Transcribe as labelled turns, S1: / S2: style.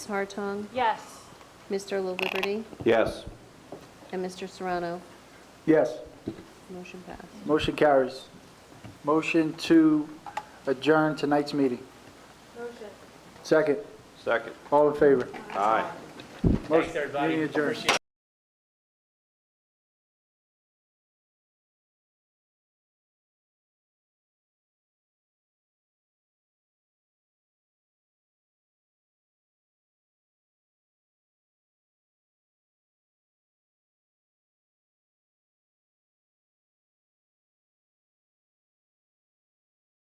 S1: Ms. Hartung,
S2: Yes.
S1: Mr. La Liberty,
S3: Yes.
S1: and Mr. Serrano.
S4: Yes,
S1: Motion passed.
S4: motion carries. Motion to adjourn tonight's meeting.
S2: Motion.
S4: Second,
S3: Second.
S4: all in favor?
S3: Aye.
S4: Motion- Meeting adjourned.